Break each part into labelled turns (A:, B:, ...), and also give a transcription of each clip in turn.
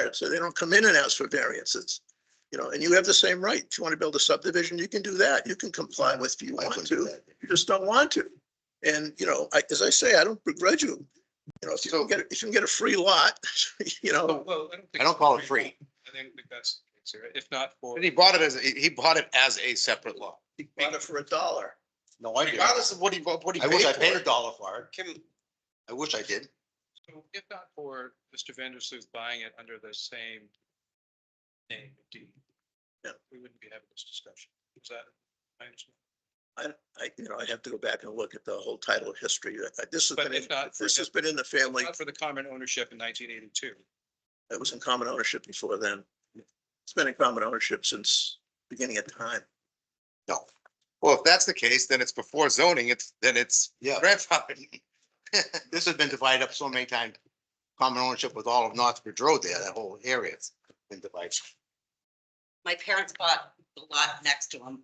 A: that, so they don't come in and ask for variances. You know, and you have the same right. If you want to build a subdivision, you can do that. You can comply with if you
B: I
A: want
B: couldn't do
A: to.
B: that.
A: You just don't want to. And, you know, I, as I say, I don't begrudge you. You know, if you don't get, if you can get a free lot, you know.
C: Well, I don't think.
B: Oh, I don't call it free.
C: I don't think that's, the case here. if not for.
B: And he bought it as, he he bought it as a separate lot.
A: He bought it for a dollar.
B: No, I Regardless of what he, bought, what he
D: I wish I
B: paid
D: paid
B: for
D: a
B: it.
D: dollar for it.
B: Kim,
D: I wish I did.
C: So If not for Mr. Vandersloot buying it under the same name deed.
A: Yeah.
C: We wouldn't be having this discussion. Is that? I understand.
A: I, I, you know, I have to go back and look at the whole title history. Uh, This has
C: But
A: been,
C: if
A: in-
C: not for
A: this has been in the family.
C: Not for the common ownership in nineteen eighty-two.
A: It was in common ownership before then. It's been in common ownership since beginning of time.
B: well, if that's the case, then it's before zoning, it's, then it's
D: Yeah.
B: grandfathered.
D: This has been divided up so many times. Common ownership with all of Northbridge Road there, that whole area's been divided.
E: my parents bought the lot next to them.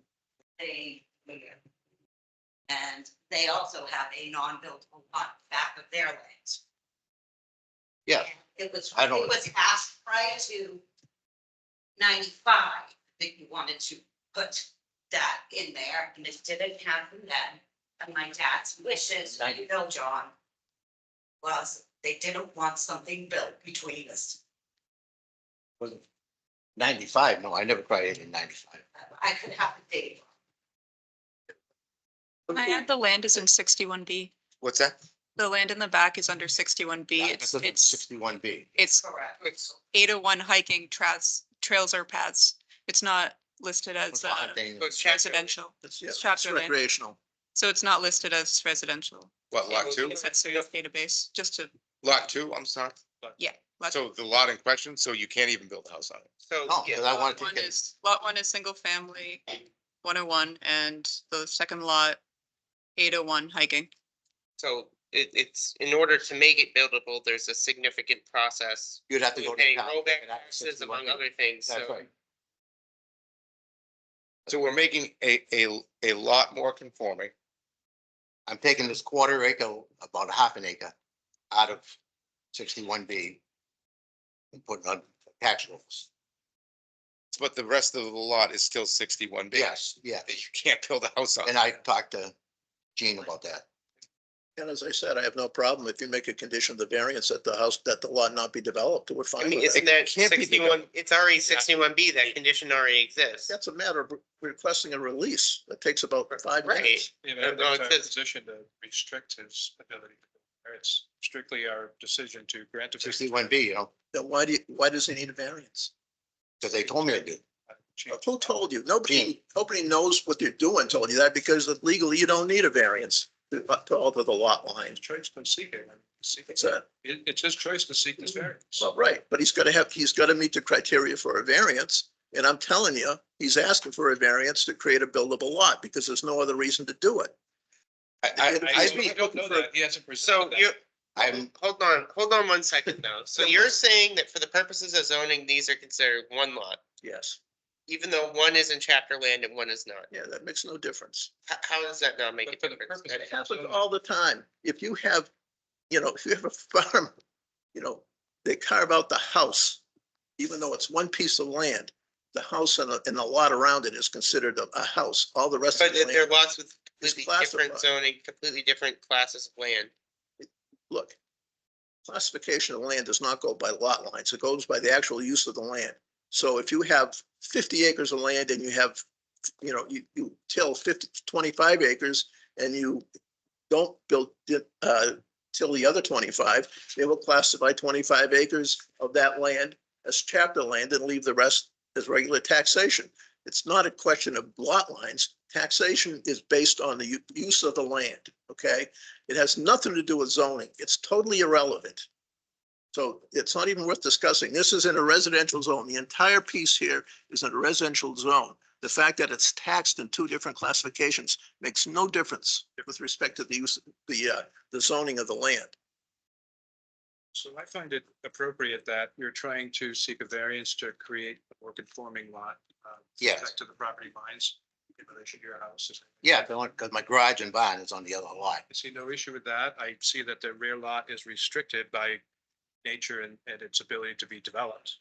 E: They moved in. And they also have a non-buildable lot back of their land.
D: Yeah.
E: It was,
D: I
E: it
D: don't-
E: was asked prior to ninety-five that you wanted to put that in there, and it didn't happen then. And my dad's wishes, you know, John, was they didn't want something built between us.
D: Ninety-five, no, I never cried in ninety-five.
E: I could have a date.
F: I add the land is in sixty-one B.
B: What's that?
F: The land in the back is under sixty-one B. It's, it's,
D: Sixty-one B.
F: it's
E: Correct.
F: eight oh one hiking trails, trails or paths. It's not listed as uh, residential.
A: It's, yeah,
F: It's
A: it's
F: chapter land.
A: recreational.
F: So it's not listed as residential.
B: What, lot two?
F: It's at Surrey's database, just to,
B: Lot two, I'm sorry.
F: yeah. lot-
B: So the lot in question, so you can't even build a house on it.
C: So.
D: No, because I wanted
F: Lot
D: to
F: one
D: get it.
F: is, lot one is single family, one oh one, and the second lot, eight oh one hiking.
G: So it, it's, in order to make it buildable, there's a significant process.
D: You'd have to go to
G: Paying
D: town.
G: rollback taxes among other things,
D: That's
G: so.
D: right.
B: So we're making a, a, a lot more conforming.
D: I'm taking this quarter acre, about a half an acre, out of sixty-one B. And putting on tax rolls.
B: But the rest of the lot is still sixty-one B.
D: Yes, yeah.
B: That you can't build a house on.
D: And I talked to Gene about that.
A: And as I said, I have no problem if you make a condition of the variance that the house, that the lot not be developed, we're
G: I
A: fine
G: mean,
A: with
G: isn't
A: that.
G: that
B: can't be
G: sixty-one, it's already sixty-one B, that condition already exists.
A: That's a matter of requesting a release. That takes about five
G: Right.
A: minutes.
C: Yeah,
G: Uh,
C: but
G: no,
C: that's
G: it
C: our
G: says-
C: position to restrict his ability. It's strictly our decision to grant. a variance.
D: Sixty-one B, you know,
A: Then why do you, why does he need a variance?
D: because they told me I did.
A: Who told you? Nobody, nobody knows what they're doing told you that because legally you don't need a variance to, to alter the lot line.
C: His choice to seek it. I mean, seek it.
A: It's a,
C: It, it's his choice to seek this variance.
A: Well, right, but he's gotta have, he's gotta meet the criteria for a variance, and I'm telling you, he's asking for a variance to create a buildable lot, because there's no other reason to do it.
B: I, I,
C: I
B: I'd
C: I
B: be,
C: don't know that. He hasn't
G: So
C: presented
G: you're,
C: that.
D: I'm,
G: hold on, hold on one second now. So you're saying that for the purposes of zoning, these are considered one lot,
A: Yes,
G: even though one is in chapter land and one is not.
A: yeah, that makes no difference.
G: How, how does that not make a
C: But for the
G: difference?
C: purposes
A: It happens all the time. If you have, you know, if you have a farm, you know, they carve out the house, even though it's one piece of land, the house and, the- and the lot around it is considered a, a house, all the rest of
G: But
A: the
G: there are
A: land,
G: lots with
A: It's
G: completely different
A: classified.
G: zoning, completely different classes of land.
A: look. Classification of land does not go by lot lines, it goes by the actual use of the land. So if you have fifty acres of land and you have, you know, you, you till 50 25 acres and you don't build, the, uh, till the other twenty-five, they will classify twenty-five acres of that land as chapter land and leave the rest as regular taxation. It's not a question of lot lines. Taxation is based on the u- use of the land, okay? It has nothing to do with zoning. It's totally irrelevant. So it's not even worth discussing. This is in a residential zone. The entire piece here is in a residential zone. The fact that it's taxed in two different classifications makes no difference with respect to the use, the, uh, the zoning of the land.
C: So I find it appropriate that you're trying to seek a variance to create a more conforming lot. uh, with
D: Yes.
C: respect To the property lines in relation to your house.
D: yeah, because my garage and barn is on the other lot.
C: I see no issue with that. I see that the rear lot is restricted by nature and, and its ability to be developed.